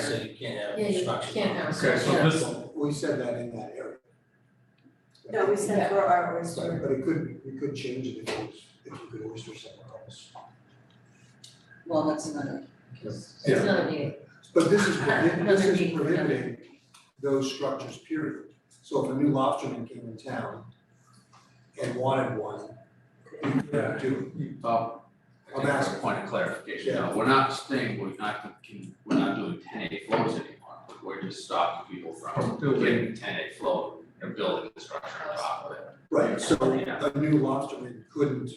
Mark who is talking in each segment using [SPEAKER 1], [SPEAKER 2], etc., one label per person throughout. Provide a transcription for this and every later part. [SPEAKER 1] so you can't have
[SPEAKER 2] Yeah, you
[SPEAKER 1] construction.
[SPEAKER 2] can't have.
[SPEAKER 3] Okay, so
[SPEAKER 2] yeah.
[SPEAKER 3] this,
[SPEAKER 4] We said that in that area.
[SPEAKER 5] No, we said for our oyster.
[SPEAKER 4] But but it could, we could change it if it was, if you could oyster somewhere else.
[SPEAKER 5] Well, that's another.
[SPEAKER 2] It's not a need.
[SPEAKER 4] But this is, prohi- this
[SPEAKER 2] Another meeting
[SPEAKER 4] is
[SPEAKER 2] for
[SPEAKER 4] prohibiting those structures, period. So if a new lobsterman came in town and wanted one, we
[SPEAKER 3] Yeah.
[SPEAKER 4] couldn't do
[SPEAKER 6] Uh, I
[SPEAKER 4] I'm
[SPEAKER 6] think that's a
[SPEAKER 4] asking.
[SPEAKER 6] point of clarification,
[SPEAKER 4] Yeah.
[SPEAKER 6] no, we're not saying we're not, gonna- can- we're not doing ten A flows anymore, we're just stopping people from
[SPEAKER 3] Building.
[SPEAKER 6] doing ten A flow and building the structure on top of it.
[SPEAKER 4] it. Right, so
[SPEAKER 6] Yeah.
[SPEAKER 4] a new lobsterman couldn't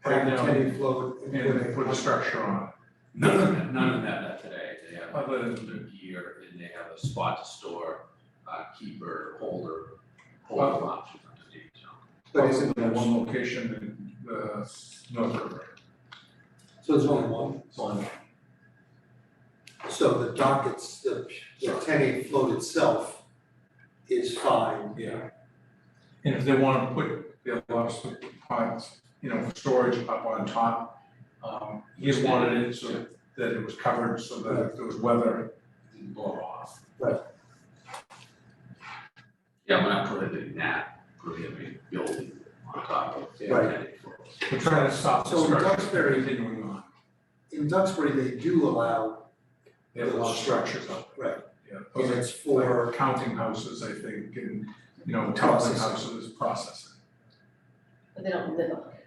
[SPEAKER 4] have
[SPEAKER 3] Right
[SPEAKER 4] a
[SPEAKER 3] now.
[SPEAKER 4] tenant float and put
[SPEAKER 3] and
[SPEAKER 4] a.
[SPEAKER 3] put a structure on
[SPEAKER 6] None of them, none of them have that today, they have
[SPEAKER 3] Other than-
[SPEAKER 6] their gear and they have a spot to store, uh, keeper, holder,
[SPEAKER 3] Well-
[SPEAKER 6] holder option underneath, so.
[SPEAKER 4] But isn't
[SPEAKER 3] it
[SPEAKER 4] there one,
[SPEAKER 3] one location in the North River.
[SPEAKER 4] so there's only one? So the dockets, the, the tenant float itself is fine.
[SPEAKER 3] Yeah. And if they wanna put their lobster pots, you know, for storage up on top, um, he just wanted it so that it was covered, so that if there was weather, it didn't blow off.
[SPEAKER 6] Yeah, we're not prohibiting that, prohibiting building on top of ten
[SPEAKER 4] Right.
[SPEAKER 6] A flows.
[SPEAKER 3] We're trying to stop the
[SPEAKER 4] So in
[SPEAKER 3] structure.
[SPEAKER 4] Duxbury-
[SPEAKER 3] Continuing on,
[SPEAKER 4] In Duxbury, they do allow,
[SPEAKER 3] they have a lot of structures up there.
[SPEAKER 4] right,
[SPEAKER 3] Yeah, those
[SPEAKER 4] and
[SPEAKER 3] are
[SPEAKER 4] it's for,
[SPEAKER 3] for counting houses, I think, and, you know, housing
[SPEAKER 4] Processing.
[SPEAKER 3] houses, processing.
[SPEAKER 2] But they don't live on it.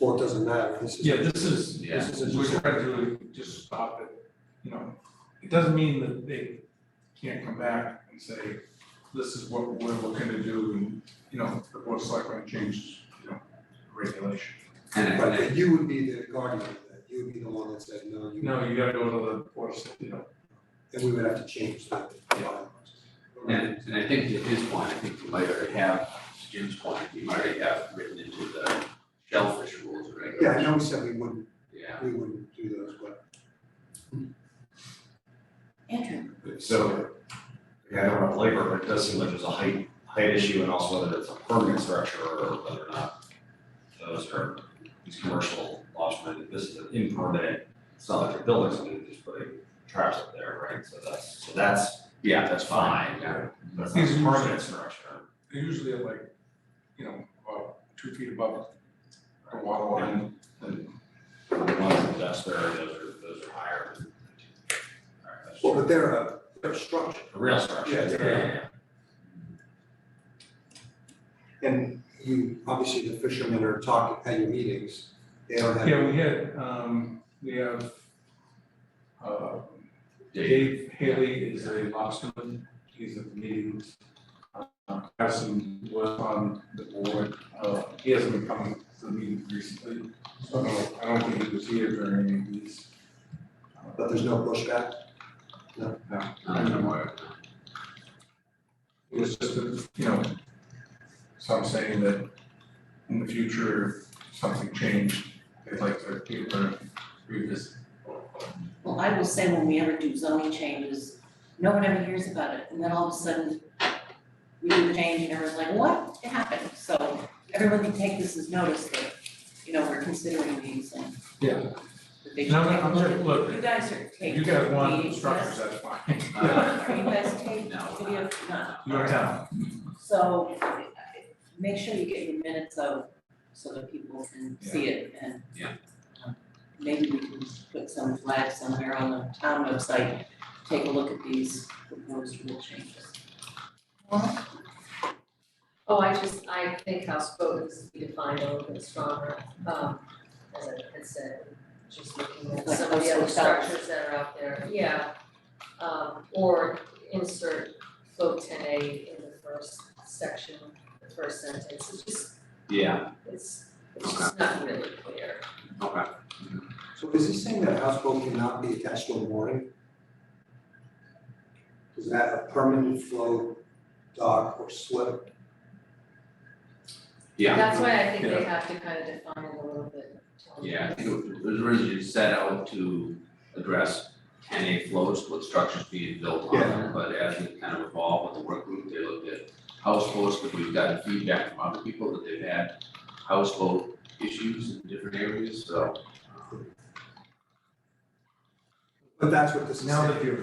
[SPEAKER 4] well, it doesn't matter, this is.
[SPEAKER 3] Yeah, this is,
[SPEAKER 6] Yeah.
[SPEAKER 3] this is, we're trying to just stop it, you know, it doesn't mean that they can't come back and say, this is what we're looking to do, and, you know, the board of selectmen changes, you know, regulation.
[SPEAKER 6] And I-
[SPEAKER 4] Right, but you would be the guardian of that, you would be the one that said, no, you,
[SPEAKER 3] No, you gotta go to the board of, Select- you know,
[SPEAKER 4] and we would have to change that.
[SPEAKER 3] Yeah.
[SPEAKER 6] And, and I think to his point, I think you might already have, to Jim's point, you might already have written into the shellfish rules
[SPEAKER 4] Yeah,
[SPEAKER 6] or
[SPEAKER 4] I
[SPEAKER 6] regulations.
[SPEAKER 4] know we said we wouldn't,
[SPEAKER 6] Yeah.
[SPEAKER 4] we wouldn't do those, but.
[SPEAKER 5] Andrew,
[SPEAKER 7] So, yeah, I don't want to labor, but it does seem like there's a height, height issue and also whether it's a permanent structure or whether or not those are, these commercial lobstermen, this is an impermanent, it's not like they're building something, they're just putting traps up there, right? So that's, so that's,
[SPEAKER 6] Yeah,
[SPEAKER 7] that's fine, yeah, that's not
[SPEAKER 3] These
[SPEAKER 7] a
[SPEAKER 3] are
[SPEAKER 7] permanent structure.
[SPEAKER 3] they usually are like, you know, about two feet above the water line, and
[SPEAKER 7] The ones in Duxbury, those are, those are higher than. All right, that's
[SPEAKER 4] Well, but they're a, they're a structure,
[SPEAKER 7] a real structure.
[SPEAKER 4] Yeah,
[SPEAKER 6] yeah, yeah.
[SPEAKER 4] and you, obviously, the fishermen are talking at your meetings, they don't have.
[SPEAKER 3] Yeah, we had, um, we have, uh,
[SPEAKER 6] Dave,
[SPEAKER 3] Dave Haley is a lobsterman, he's at the meetings. Uh, Carson was on the board, uh, he hasn't been coming to the meetings recently, so I don't, I don't think he was here during any of these. Uh,
[SPEAKER 4] But there's no pushback,
[SPEAKER 6] I don't know where-
[SPEAKER 3] It was just, a, you know, some saying that in the future, if something changed, they'd like to people to revisit.
[SPEAKER 5] well, I will say when we ever do zoning changes, no one ever hears about it, and then all of a sudden we do the change and everyone's like, what happened? So everyone can take this as notice that, you know, we're considering these and
[SPEAKER 3] Yeah.
[SPEAKER 5] that they should take
[SPEAKER 3] No, no,
[SPEAKER 5] a
[SPEAKER 3] I'm
[SPEAKER 5] look.
[SPEAKER 3] just- look,
[SPEAKER 5] You guys are taking.
[SPEAKER 3] You guys
[SPEAKER 5] the-
[SPEAKER 3] want structures, that's fine.
[SPEAKER 6] Uh,
[SPEAKER 5] Are you guys taking
[SPEAKER 6] No.
[SPEAKER 5] video? No.
[SPEAKER 3] You don't have.
[SPEAKER 5] So make sure you get your minutes out so that people can see it and. um,
[SPEAKER 6] Yeah.
[SPEAKER 5] Maybe we can put some flags somewhere on the town website, take a look at these proposed rule changes.
[SPEAKER 2] Oh, I just, I think houseboat needs to be defined a little bit stronger, um, as I had said, just looking at
[SPEAKER 5] Like
[SPEAKER 2] some of the other
[SPEAKER 5] houseboat style.
[SPEAKER 2] structures that are out there, yeah. Um, or insert float ten A in the first section, the first sentence, it's just,
[SPEAKER 6] Yeah,
[SPEAKER 2] it's, it's just not really clear.
[SPEAKER 6] okay.
[SPEAKER 4] so is he saying that a houseboat cannot be attached to a mooring? Is that a permanent float dock or slip?
[SPEAKER 6] Yeah,
[SPEAKER 2] That's why I think they have to kind of define it a little bit. Tony.
[SPEAKER 6] yeah, I think it was originally set out to address ten A flows with structures being built on them, but as it kind of evolved with the work group, they looked at house flows, but we've gotten feedback from other people that they've had house flow issues in different areas, so. um,
[SPEAKER 4] But that's what this is
[SPEAKER 3] Now
[SPEAKER 4] saying.
[SPEAKER 3] that you're